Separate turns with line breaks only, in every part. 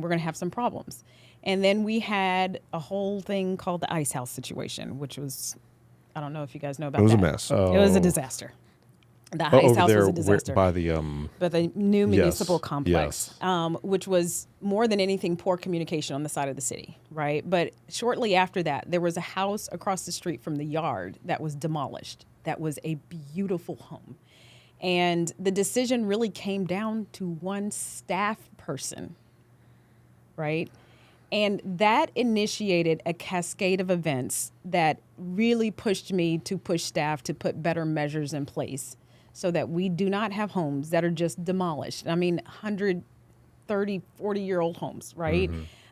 we're going to have some problems. And then we had a whole thing called the ice house situation, which was, I don't know if you guys know about
It was a
that.
mess.
It was a disaster. The
Oh,
ice
over
house
there
was a
where-
disaster.
by the um.
but the new municipal
Yes,
complex, um, which was more than anything poor communication on the side of the city, right? But shortly after that, there was a house across the street from the yard that was demolished. That was a beautiful home. And the decision really came down to one staff person, right? And that initiated a cascade of events that really pushed me to push staff to put better measures in place so that we do not have homes that are just demolished. I mean, 130, 40 year old homes, right?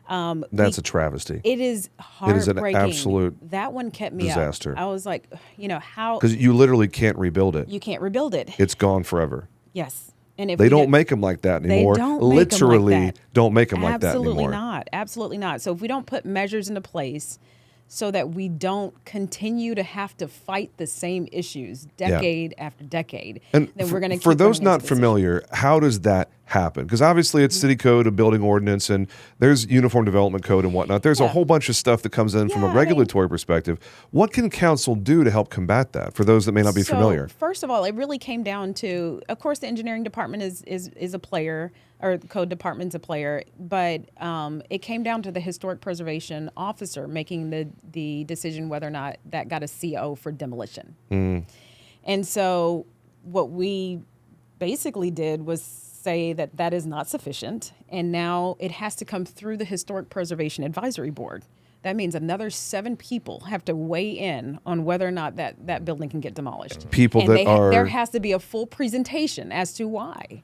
Um,
That's a travesty.
it is
Mm-hmm. It is an
heartbreaking.
absolute
that one kept me up.
disaster.
I was like, you know, how
Because you literally can't rebuild it.
you can't rebuild it.
It's gone forever.
Yes, and if
They
we
don't
did-
make them like that anymore.
don't make 'em like
Literally
that.
don't make them like that
absolutely
anymore.
not absolutely not so if we don't put measures into place so that we don't continue to have to fight the same issues decade after decade
And
then
f-
we're going to
for those not familiar, how does that happen? Because obviously it's city code, a building ordinance, and there's uniform development code and whatnot. There's a whole bunch of stuff that comes in from
Yeah, I
a
mean-
regulatory perspective. What can council do to help combat that? For those that may not be
so,
familiar,
First of all, it really came down to, of course, the engineering department is is is a player, or the code department's a player, but um, it came down to the historic preservation officer making the the decision whether or not that got a CO for demolition. And so, what we basically did was say that that is not sufficient, and now it has to come through the Historic Preservation Advisory Board. That means another seven people have to weigh in on whether or not that, that building can get demolished.
People
and
that
they ha-
are-
there has to be a full presentation as to why.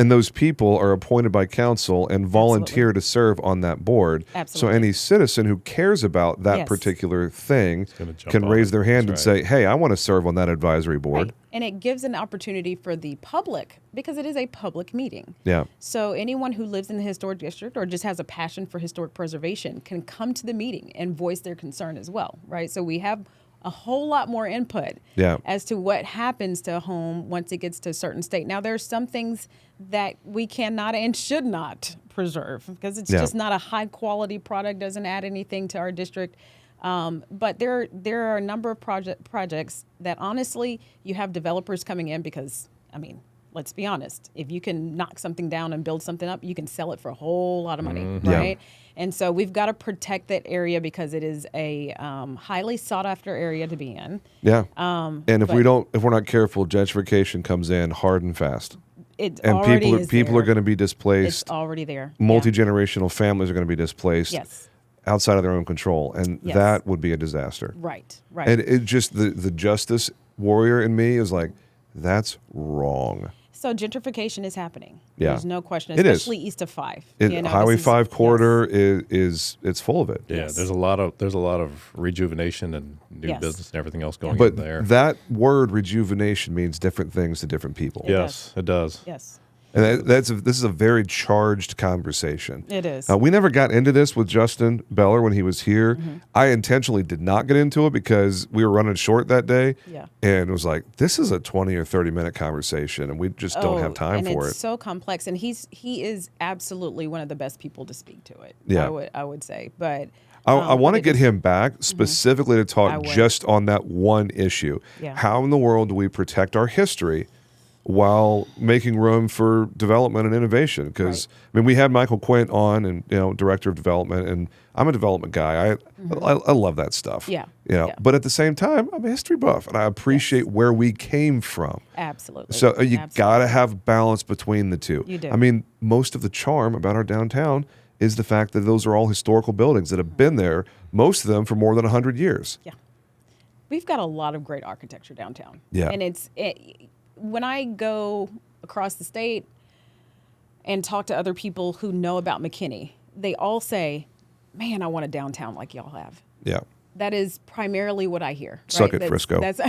and those people are appointed by council and volunteer to serve on that board.
Absolutely.
So any citizen who cares about that
Yes.
particular thing
gonna jump
can
on
raise
it.
their hand
That's
and say, "Hey, I want to serve on that advisory board."
Right. And it gives an opportunity for the public because it is a public meeting.
Yeah.
So anyone who lives in the historic district or just has a passion for historic preservation can come to the meeting and voice their concern as well, right? So we have a whole lot more input
Yeah.
as to what happens to a home once it gets to a certain state. Now there are some things that we cannot and should not preserve because it's
Yeah.
just not a high quality product, doesn't add anything to our district. Um, but there there are a number of project projects that honestly you have developers coming in because I mean let's be honest if you can knock something down and build something up you can sell it for a whole lot of money
Mm-hmm. Yeah.
right and so we've got to protect that area because it is a um, highly sought after area to be in
Yeah. and if
Um, but-
we don't, if we're not careful, gentrification comes in hard and fast,
it
and
already
people are,
is
people
there.
are going to be
it's
displaced.
already there Yeah.
Multi generational families are going to be displaced.
Yes.
Outside of their own control, and
Yes.
that would be a disaster.
right right
And it just the the justice warrior in me is like, that's wrong.
so gentrification is happening
Yeah.
there's no question
It is.
especially east of five
It,
You know,
Highway
this is-
Five
yes.
corridor is, is it's full of it.
Yeah,
Yes.
there's a lot of there's a lot of rejuvenation and new
Yes.
business and everything else going
But
in there.
that word rejuvenation means different things to different people.
yes, it does.
yes
And that, that's a, this is a very charged conversation.
It is.
Uh, we never got into this with Justin Beller when he was here.
Mm-hmm.
I intentionally did not get into it because we were running short that day.
Yeah.
And it was like, this is a 20 or 30 minute conversation, and we just don't have
Oh,
time
and
for
it's
it.
so complex, and he's he is absolutely one of the best people to speak to it.
Yeah.
I would I would say, but
I,
um,
I want
but
to
it
get
is-
him back specifically to
Mm-hmm. I
talk
would.
just on that one issue.
Yeah.
How in the world do we protect our history while making room for development and innovation? Because I mean, we had Michael Quint on, and you know, director of development, and I'm a development guy. I I, I love that stuff.
Mm-hmm. Yeah.
You know,
Yeah.
but at the same time, I'm a history buff, and I appreciate where we came from.
absolutely.
So uh, you
absolutely.
got to have balance between the two.
You do.
I mean, most of the charm about our downtown is the fact that those are all historical buildings
Mm-hmm.
that have been there, most of them for more than 100 years.
Yeah. We've got a lot of great architecture downtown.
Yeah.
And it's it, when I go across the state and talk to other people who know about McKinney, they all say, "Man, I want a downtown like y'all have."
Yeah.
That is primarily what I hear. Right?
Suck it,
That's-
Frisco.
That's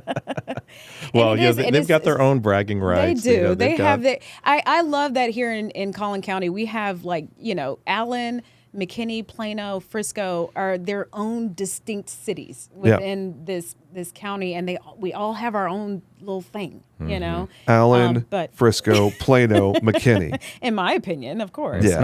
Well,
it
yeah,
is-
they,
it
they've
is-
got their own bragging rights.
They do.
you know,
they
they've got-
have that. I, I love that here in, in Collin County. We have like, you know, Allen, McKinney, Plano, Frisco are their own distinct cities
Yeah.
within this this county, and they we all have our own little thing,
Mm-hmm.
you know.
Allen,
Um, but
Frisco, Plano, McKinney.
in my opinion, of course,
Yeah.